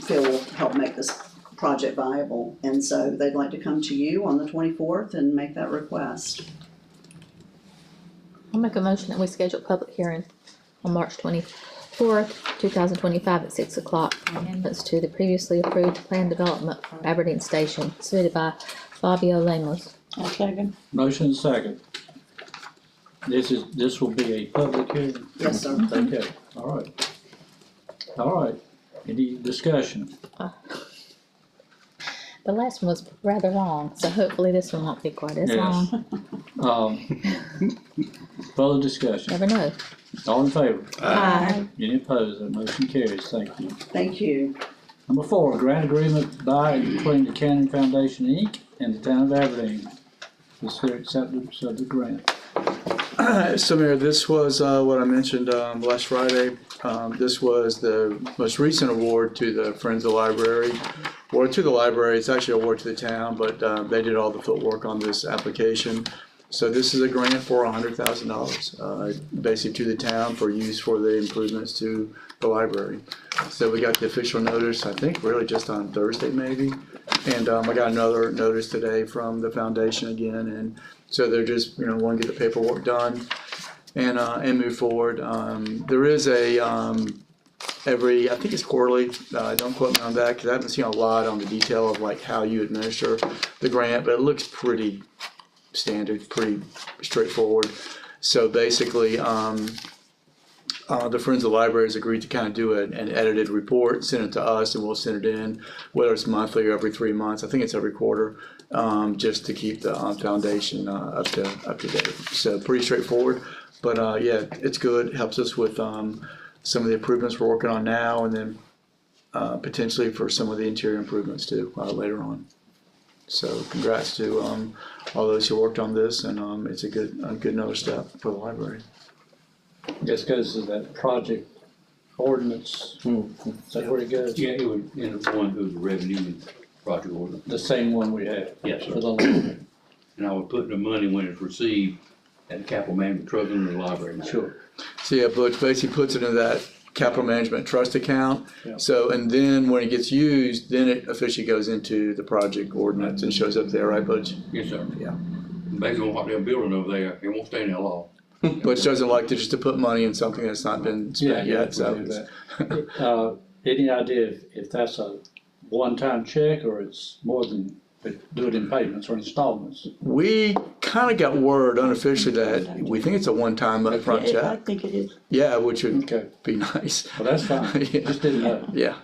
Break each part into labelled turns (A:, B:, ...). A: feel will help make this project viable. And so they'd like to come to you on the twenty-fourth and make that request.
B: I'll make a motion that we schedule a public hearing on March twenty-fourth, two thousand twenty-five at six o'clock. Amendments to the previously approved plan development for Aberdeen Station submitted by Fabio Lemos.
C: I'll second.
D: Motion second. This is, this will be a public hearing?
A: Yes, sir.
D: Okay, all right. All right, any discussion?
B: The last one was rather long, so hopefully this one won't be quite as
D: Yes.
B: long.
D: Um, further discussion,
B: Never know.
D: all in favor?
B: Aye.
D: Any opposed, that motion carries, thank you.
A: Thank you.
D: Number four, grant agreement by and between the Cannon Foundation, Inc. and the town of Aberdeen. This here acceptance of the grant.
E: So Mayor, this was uh, what I mentioned um, last Friday. Um, This was the most recent award to the Friends of the Library, or to the library, it's actually an award to the town, but uh, they did all the footwork on this application. So this is a grant for hundred thousand dollars, uh, basically to the town for use for the improvements to the library. So we got the official notice, I think really just on Thursday maybe. And um, I got another notice today from the foundation again, and so they're just, you know, want to get the paperwork done and, uh, and move forward. Um, there is a, um, every, I think it's quarterly, uh, don't quote me on that, because I haven't seen a lot on the detail of like how you administer the grant, but it looks pretty standard, pretty straightforward. So basically, um, uh, the Friends of the Library has agreed to kind of do an, an edited report, send it to us, and we'll send it in, whether it's monthly or every three months. I think it's every quarter, um, just to keep the um, foundation uh, up to up to date. So pretty straightforward, but uh, yeah, it's good. Helps us with um, some of the improvements we're working on now, and then uh, potentially for some of the interior improvements too uh, later on. So congrats to um, all those who worked on this, and um, it's a good a good another step for the library.
D: This goes to that project ordinance, is that where it goes?
F: Yeah, it would, and it's one who's revenue and project order.
D: The same one we have.
F: Yes,
D: For
F: sir.
D: the library.
F: And I would put the money when it's received at the capital management trust in the library. now.
D: Sure.
E: So yeah, but basically puts it in that capital management trust account.
D: Yeah.
E: So, and then when it gets used, then it officially goes into the project ordinance and shows up there, right, Butch?
F: Yes, sir.
E: Yeah.
F: Based on what they're building over there, it won't stay in there long.
E: Butch doesn't like to just to put money in something that's not been spent
D: yeah,
E: yet, so.
D: we do
E: it's-
D: Uh, any idea if, if that's a one-time check or it's more than, but do it in payments or installments?
E: We kind of got word unofficially that we think it's a one-time upfront
C: Yeah, I
E: check.
C: think it is.
E: Yeah, which would
D: Okay,
E: be nice.
D: well, that's fine,
E: Yeah.
D: just didn't know,
E: Yeah.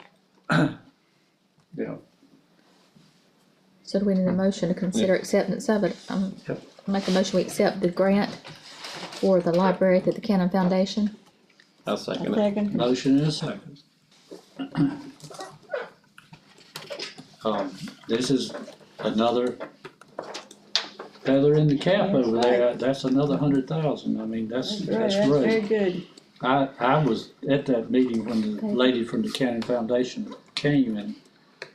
D: yeah.
B: So do we need a motion to consider acceptance of it? Um,
E: Yep.
B: make a motion, we accept the grant for the library to the Cannon Foundation.
G: I'll
C: I'll
G: second it.
C: second.
D: Motion and a second. Um, this is another feather in the cap over there, that's another hundred thousand, I mean, that's,
C: That's right,
D: that's
C: that's very
D: great.
C: good.
D: I, I was at that meeting when the
B: Okay.
D: lady from the Cannon Foundation came and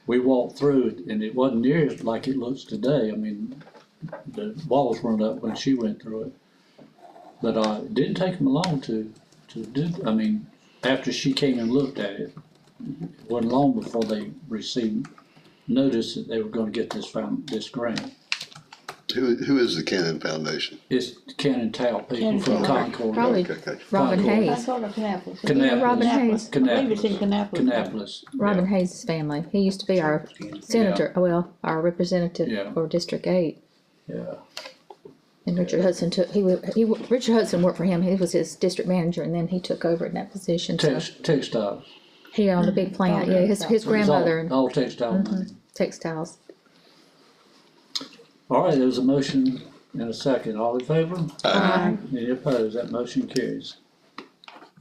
D: we walked through it and it wasn't near as like it looks today. I mean, the walls weren't up when she went through it. But, uh, it didn't take them long to, to do, I mean, after she came and looked at it. It wasn't long before they received notice that they were gonna get this found, this grant.
H: Who, who is the Cannon Foundation?
D: It's Cannon Towel people
C: Cannon
D: from
C: Towel.
D: Concord,
B: Probably
H: Okay, okay.
B: Robin
D: Concord.
C: I
B: Hayes,
C: thought of Canapolis.
D: Canapolis.
B: Robin Hayes.
C: I believe it's in Canapolis.
D: Canapolis.
B: Robin Hayes' family. He used to be our senator, well, our
D: Yeah.
B: representative for District Eight.
D: Yeah.
B: And Richard Hudson took, he, wa- he, wa- Richard Hudson worked for him, he was his district manager, and then he took over in that position, so
D: Tex- textiles.
B: he owned a big plant, yeah, his, his
D: It's all-
B: grandmother and Mm-hmm.
D: All textile money.
B: textiles.
D: All right, there's a motion and a second. All in favor?
C: Aye.
D: Any opposed? That motion carries.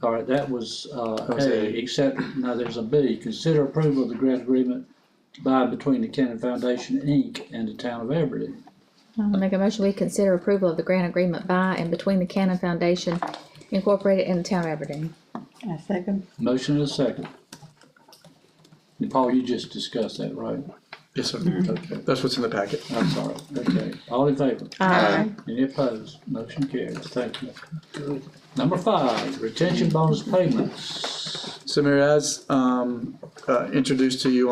D: All right, that was, uh,
E: was
D: A,
E: A.
D: except, now there's a B. Consider approval of the grant agreement by and between the Cannon Foundation, Inc. and the town of Aberdeen.
B: I'll make a motion, we consider approval of the grant agreement by and between the Cannon Foundation Incorporated and the Town of Aberdeen.
C: I second.
D: Motion and a second. And Paul, you just discussed that, right?
E: Yes, sir.
D: Okay,
E: That's what's in the packet.
D: I'm sorry, okay, all in favor?
B: Aye.
D: Any opposed? Motion carries. Thank you. Number five, retention bonus payments.
E: So Mayor, as um, uh, introduced to you